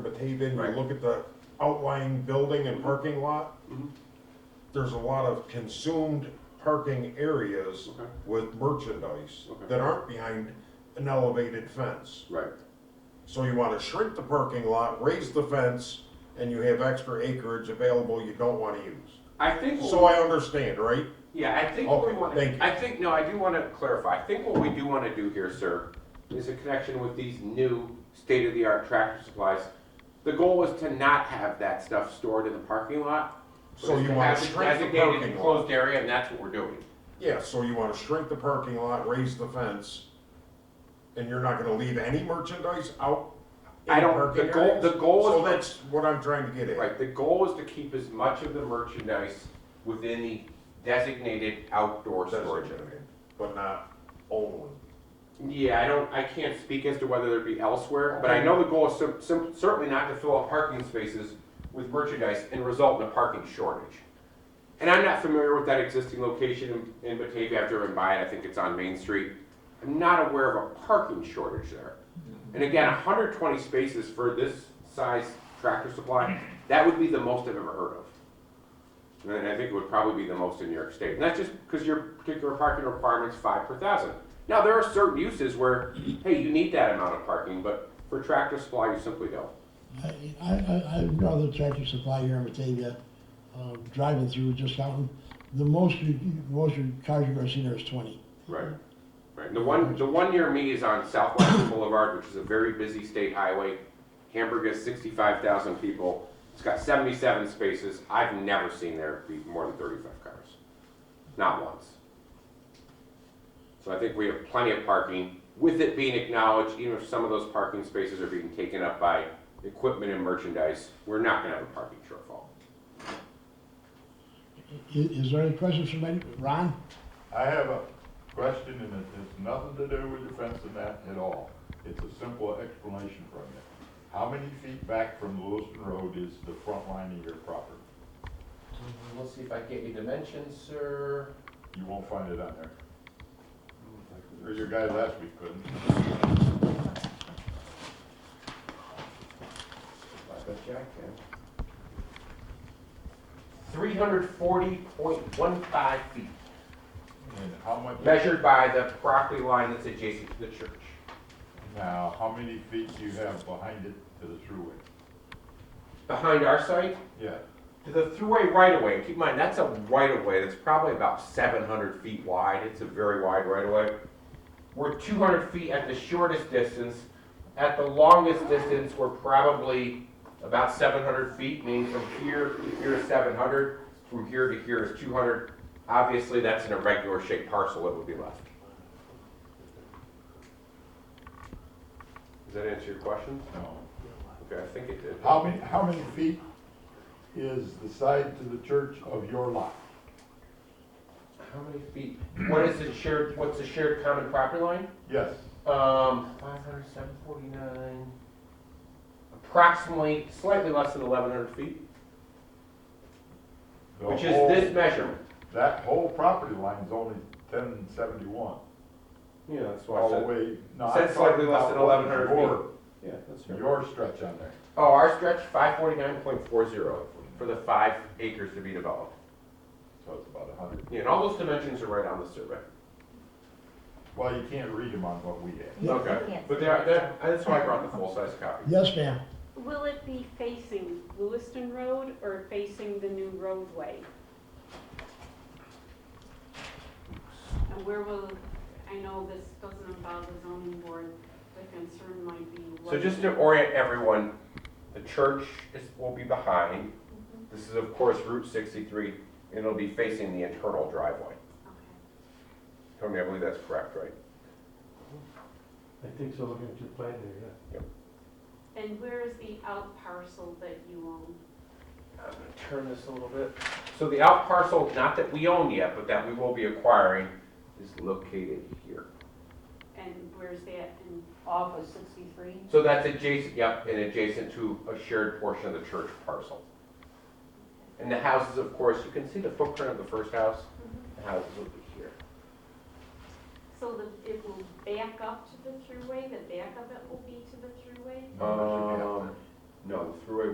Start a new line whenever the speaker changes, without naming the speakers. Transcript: Haven, you
Right.
look at the outlying building and parking lot,
Mhm.
there's a lot of consumed parking areas
Okay.
with merchandise
Okay.
that aren't behind an elevated fence.
Right,
So you wanna shrink the parking lot, raise the fence, and you have extra acreage available you don't wanna use.
I think.
So I understand, right?
Yeah, I think what we
Okay,
want,
thank you.
I think, no, I do want to clarify. I think what we do want to do here, sir, is a connection with these new state-of-the-art tractor supplies. The goal was to not have that stuff stored in the parking lot. but
So
is
you
to
wanna
have it
shrink the
Designated
parking lot.
enclosed area, and that's what we're doing.
Yeah, so you wanna shrink the parking lot, raise the fence, and you're not gonna leave any merchandise out? in
I don't-
parking
the goal-
areas?
the goal
So
is-
that's what I'm trying to get at.
Right, the goal is to keep as much of the merchandise within the designated outdoor
That's what
storage
I'm
area.
getting at, But not only.
Yeah, I don't, I can't speak as to whether there'd be elsewhere, but I know the goal is cer- cer- certainly not to fill up parking spaces with merchandise and result in a parking shortage. And I'm not familiar with that existing location in in Batavia, I've driven by it, I think it's on Main Street. I'm not aware of a parking shortage there. And again, hundred twenty spaces for this size tractor supply, that would be the most I've ever heard of. And I think it would probably be the most in New York State. And that's just because your particular parking requirement's five per thousand. Now, there are certain uses where, hey, you need that amount of parking, but for tractor supply, you simply don't.
I, I, I I know the tractor supply here in Batavia, uh, driving through just out, the most, you- you- most you- cars you've ever seen there is twenty.
Right. Right. The one, the one near me is on Southwestern Boulevard, which is a very busy state highway. Hamburg has sixty-five thousand people. It's got seventy-seven spaces. I've never seen there be more than thirty-five cars. Not once. So I think we have plenty of parking, with it being acknowledged, even if some of those parking spaces are being taken up by equipment and merchandise, we're not gonna have a parking shortfall.
I- Is there any questions from any, Ron?
I have a question, and it has nothing to do with the fence and that at all. It's a simple explanation from you. How many feet back from Lewiston Road is the front line of your property?
Mm-hmm. Let's see if I get any dimensions, sir.
You won't find it on there. Or your guy last week couldn't.
I bet you I can. Three hundred forty point one five feet,
And how much,
measured by the property line that's adjacent to the church.
now, how many feet do you have behind it to the thruway?
Behind our site,
Yeah,
to the thruway right of way, keep in mind, that's a right of way, that's probably about seven hundred feet wide, it's a very wide right of way. We're two hundred feet at the shortest distance, at the longest distance, we're probably about seven hundred feet, meaning from here to here is seven hundred, from here to here is two hundred. Obviously, that's an irregular shaped parcel, it would be left. Does that answer your question?
no.
Okay, I think it did.
How many, how many feet is the side to the church of your lot?
How many feet? What is the shared, what's the shared common property line?
Yes,
Um, five hundred, seven forty-nine. Approximately, slightly less than eleven hundred feet,
the
which is
whole-
this measurement.
That whole property line is only ten seventy-one,
Yeah, that's why Oh, I
all the
said.
way, no, I'm
Said slightly
talking
less than
about what is
1100
your,
Yeah, that's
your stretch on there.
Oh, our stretch, five forty-nine point four zero for the five acres to be developed.
So it's about a hundred,
Yeah, and all those dimensions are right on the survey.
well, you can't read them on what we have.
Yeah.
Okay, but they are, that, that's why I brought the full-size copy.
Yes, ma'am.
Will it be facing Lewiston Road or facing the new roadway? And where will, I know this doesn't involve the zoning board, the concern might be.
So
what-
just to orient everyone, the church is, will be behind.
Mhm,
This is of course Route sixty-three, and it'll be facing the internal driveway.
okay.
Tony, I believe that's correct, right?
I think so, looking at your plan there, yeah.
And where is the out parcel that you own?
I'm gonna turn this a little bit. So the out parcel, not that we own yet, but that we will be acquiring, is located here.
And where's that in?
off of sixty-three.
So that's adjacent, yep, and adjacent to a shared portion of the church parcel. And the houses, of course, you can see the footprint of the first house, the houses will be here.
Mm-hmm. So that it will back up to the thruway, the back of it will be to the thruway?
No, that should be up
Um,
there.
No, the throughway